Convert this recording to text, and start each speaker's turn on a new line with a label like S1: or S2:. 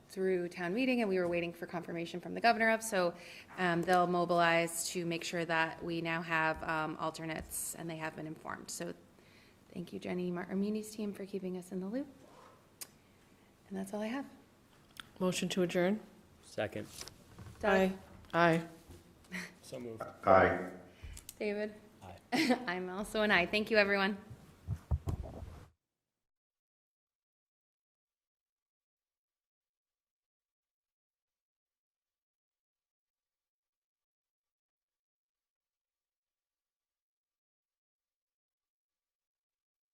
S1: through town meeting and we were waiting for confirmation from the governor of. So um, they'll mobilize to make sure that we now have um, alternates and they have been informed. So thank you, Jenny Martinini's team, for keeping us in the loop. And that's all I have.
S2: Motion to adjourn?
S3: Second.
S1: Doug?
S2: Aye.
S3: So moved.
S4: Aye.
S1: David? I'm also an aye. Thank you, everyone.